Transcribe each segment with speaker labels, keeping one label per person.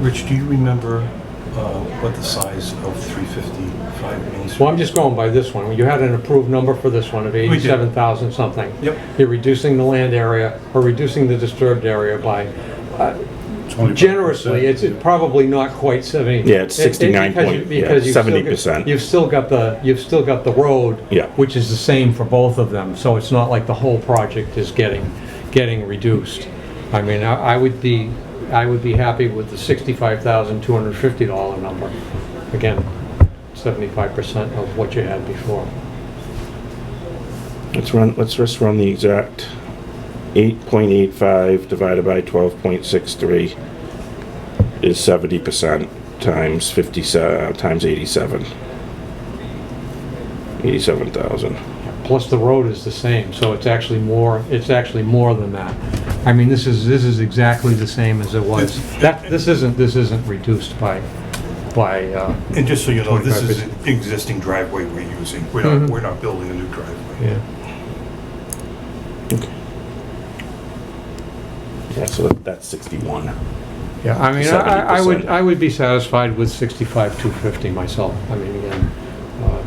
Speaker 1: Rich, do you remember uh, what the size of 355 Main Street?
Speaker 2: Well, I'm just going by this one. You had an approved number for this one of
Speaker 1: did.
Speaker 2: 87,000 something.
Speaker 1: Yep.
Speaker 2: You're reducing the land area or reducing the disturbed area by, uh,
Speaker 3: 25%.
Speaker 2: generously, it's it's probably not quite 70.
Speaker 4: Yeah, it's
Speaker 2: It- it- because
Speaker 4: 69 point-
Speaker 2: you-
Speaker 4: yeah,
Speaker 2: because you've still got-
Speaker 4: 70%.
Speaker 2: You've still got the, you've still got the road.
Speaker 4: Yeah.
Speaker 2: Which is the same for both of them, so it's not like the whole project is getting, getting reduced. I mean, I I would be, I would be happy with the $65,250 number. Again, 75% of what you had before.
Speaker 4: Let's run, let's just run the exact 8.85 divided by 12.63 is 70% times 50, uh, times 87. 87,000.
Speaker 2: Plus the road is the same, so it's actually more, it's actually more than that. I mean, this is, this is exactly the same as it was. That, this isn't, this isn't reduced by, by, uh,
Speaker 1: And just so you know, this is
Speaker 2: 25%.
Speaker 1: an existing driveway we're using. We're not, we're not building a new driveway.
Speaker 2: Mm-hmm. yeah.
Speaker 4: Yeah, so that- that's 61.
Speaker 2: Yeah, I mean, I, I would,
Speaker 4: 70%.
Speaker 2: I would be satisfied with sixty-five, two fifty myself, I mean, again, uh,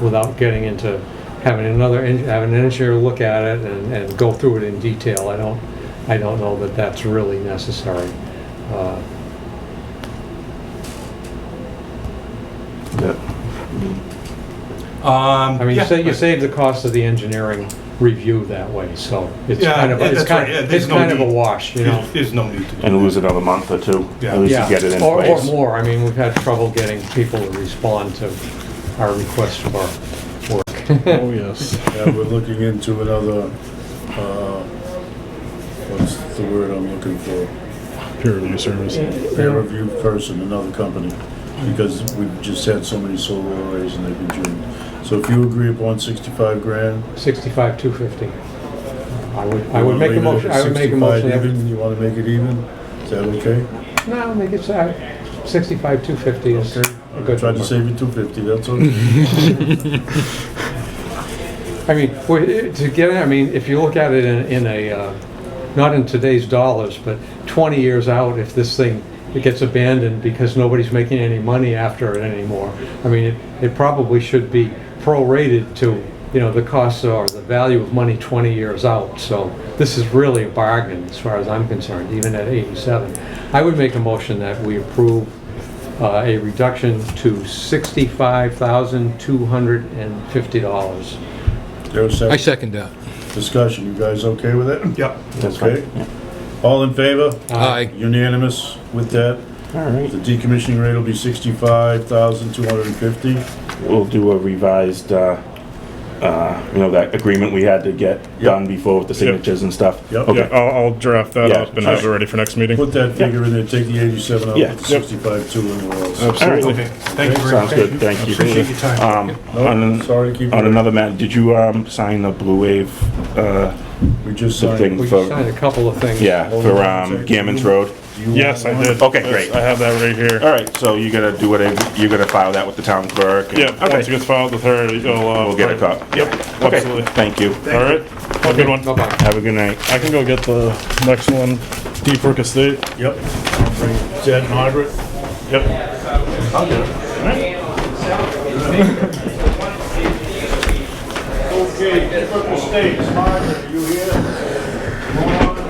Speaker 2: without getting into having another, en- having an engineer look at it and, and go through it in detail, I don't, I don't know that that's really necessary. Uh,
Speaker 4: Yep.
Speaker 1: Um,
Speaker 2: I mean,
Speaker 1: yeah,
Speaker 2: you say, you
Speaker 1: right.
Speaker 2: save the cost of the engineering review that way, so it's
Speaker 1: Yeah,
Speaker 2: kind of,
Speaker 1: yeah,
Speaker 2: it's
Speaker 1: that's
Speaker 2: kind,
Speaker 1: right, yeah,
Speaker 2: it's
Speaker 1: there's no
Speaker 2: kind of a
Speaker 1: need.
Speaker 2: wash, you know?
Speaker 1: There's there's no need to do.
Speaker 4: And lose another month or two.
Speaker 1: Yeah.
Speaker 4: At least
Speaker 2: Yeah,
Speaker 4: you get it in
Speaker 2: or- Or
Speaker 4: place.
Speaker 2: more, I mean, we've had trouble getting people to respond to our requests for work.
Speaker 3: Oh, yes. Yeah, we're looking into another, uh, what's the word I'm looking for?
Speaker 5: peer review service.
Speaker 3: Peer review person, another company, because we've just had so many solar arrays and they've been doomed. So if you agree upon sixty-five grand.
Speaker 2: 65, 250. I would, I
Speaker 3: you
Speaker 2: would
Speaker 3: wanna
Speaker 2: make a
Speaker 3: leave it at
Speaker 2: motion, I would make a
Speaker 3: 65
Speaker 2: motion. that-
Speaker 3: Even, you wanna make it even? Is that okay?
Speaker 2: No, make it, uh, 65, 250 is a
Speaker 3: I
Speaker 2: good
Speaker 3: tried to
Speaker 2: number.
Speaker 3: save you two fifty, that's okay.
Speaker 2: I mean, we- to get, I mean, if you look at it in, in a, uh, not in today's dollars, but 20 years out, if this thing, it gets abandoned because nobody's making any money after it anymore, I mean, it- it probably should be prorated to, you know, the cost or the value of money 20 years out. So this is really a bargain as far as I'm concerned, even at 87. I would make a motion that we approve uh, a reduction to $65,250.
Speaker 3: There's
Speaker 6: I
Speaker 3: a
Speaker 6: second that.
Speaker 3: discussion, you guys okay with it?
Speaker 1: Yep.
Speaker 4: That's
Speaker 3: Okay.
Speaker 4: fine.
Speaker 3: All in favor?
Speaker 6: Aye.
Speaker 3: Unanimous with that?
Speaker 4: All right.
Speaker 3: The decommissioning rate will be sixty-five thousand, two hundred and fifty.
Speaker 4: We'll do a revised, uh, uh, you know, that agreement we had to get done before with the signatures and stuff.
Speaker 3: Yep.
Speaker 4: Okay.
Speaker 5: Yeah, I'll, I'll draft that
Speaker 4: Yeah,
Speaker 5: up and have it
Speaker 4: sure.
Speaker 5: ready for next meeting.
Speaker 3: Put that figure in there, take the eighty-seven out,
Speaker 4: Yeah.
Speaker 3: put sixty-five, two, and we're all set.
Speaker 4: All right.
Speaker 1: Okay, thank you very much.
Speaker 4: Sounds good, thank you.
Speaker 1: Appreciate your time.
Speaker 4: Um, on
Speaker 3: No,
Speaker 4: an-
Speaker 3: oh, sorry to keep
Speaker 4: On
Speaker 3: you,
Speaker 4: another matter, did you um, sign the Blue Wave, uh,
Speaker 3: we just
Speaker 4: the
Speaker 3: signed.
Speaker 4: thing
Speaker 2: We
Speaker 4: for,
Speaker 2: signed a couple of things.
Speaker 4: yeah, for um, Gammons Road?
Speaker 3: Do you
Speaker 5: Yes, I
Speaker 3: want
Speaker 5: did.
Speaker 4: Okay, great.
Speaker 5: That's- I have that right here.
Speaker 4: All right, so you're gonna do whatever, you're gonna file that with the town clerk? and-
Speaker 5: Yeah, once it
Speaker 4: Okay,
Speaker 5: gets filed with her, you'll, uh.
Speaker 4: we'll get a
Speaker 5: find-
Speaker 4: copy.
Speaker 5: Yep,
Speaker 4: Okay,
Speaker 5: absolutely.
Speaker 4: thank you.
Speaker 5: All right, have a good one.
Speaker 2: Bye-bye.
Speaker 4: Have a good night.
Speaker 5: I can go get the next one, Deep Brook Estate.
Speaker 3: one? Yep. I'll bring it. Is that Margaret?
Speaker 5: Yep.
Speaker 3: Okay, different mistakes, Margaret, are you here?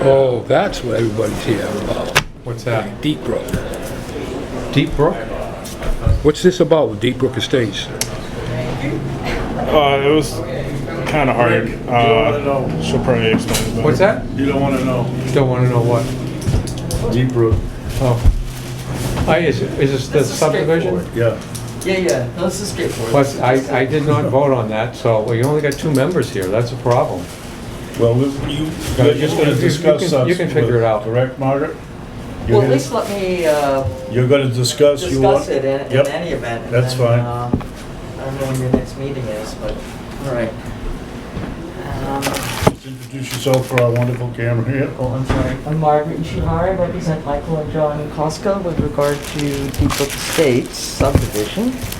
Speaker 6: Oh, that's what everybody's here about.
Speaker 2: What's that?
Speaker 6: Deep Brook.
Speaker 2: Deep Brook?
Speaker 6: What's this about with Deep Brook Estates?
Speaker 5: Uh, it was kinda hard. Uh, she'll probably explain it better.
Speaker 2: What's that?
Speaker 3: You don't wanna know.
Speaker 2: Don't want to know what.
Speaker 3: Deep Brook,
Speaker 2: Oh. I, is, it- is this the
Speaker 7: This is
Speaker 2: subdivision?
Speaker 3: yeah.
Speaker 7: Yeah, yeah, no, this is straightforward.
Speaker 2: Plus, I, I did not vote on that, so well, you only got two members here, that's a problem.
Speaker 3: Well, we- you, you're just
Speaker 2: you-
Speaker 3: gonna
Speaker 2: you
Speaker 3: discuss
Speaker 2: can-
Speaker 3: us.
Speaker 2: you can figure it out.
Speaker 3: Correct, Margaret? You're
Speaker 7: Well, at
Speaker 3: gonna-
Speaker 7: least let me uh,
Speaker 3: You're gonna discuss, you want?
Speaker 7: discuss it in in
Speaker 3: Yep.
Speaker 7: any event. and
Speaker 3: That's
Speaker 7: then,
Speaker 3: fine.
Speaker 7: uh, I don't know when your next meeting is, but, all right. Um,
Speaker 3: Just Introduce yourself for our wonderful camera here.
Speaker 7: Oh, I'm sorry. I'm Margaret Ishihara, I represent Michael and John Costco with regard to Deep Brook Estates subdivision.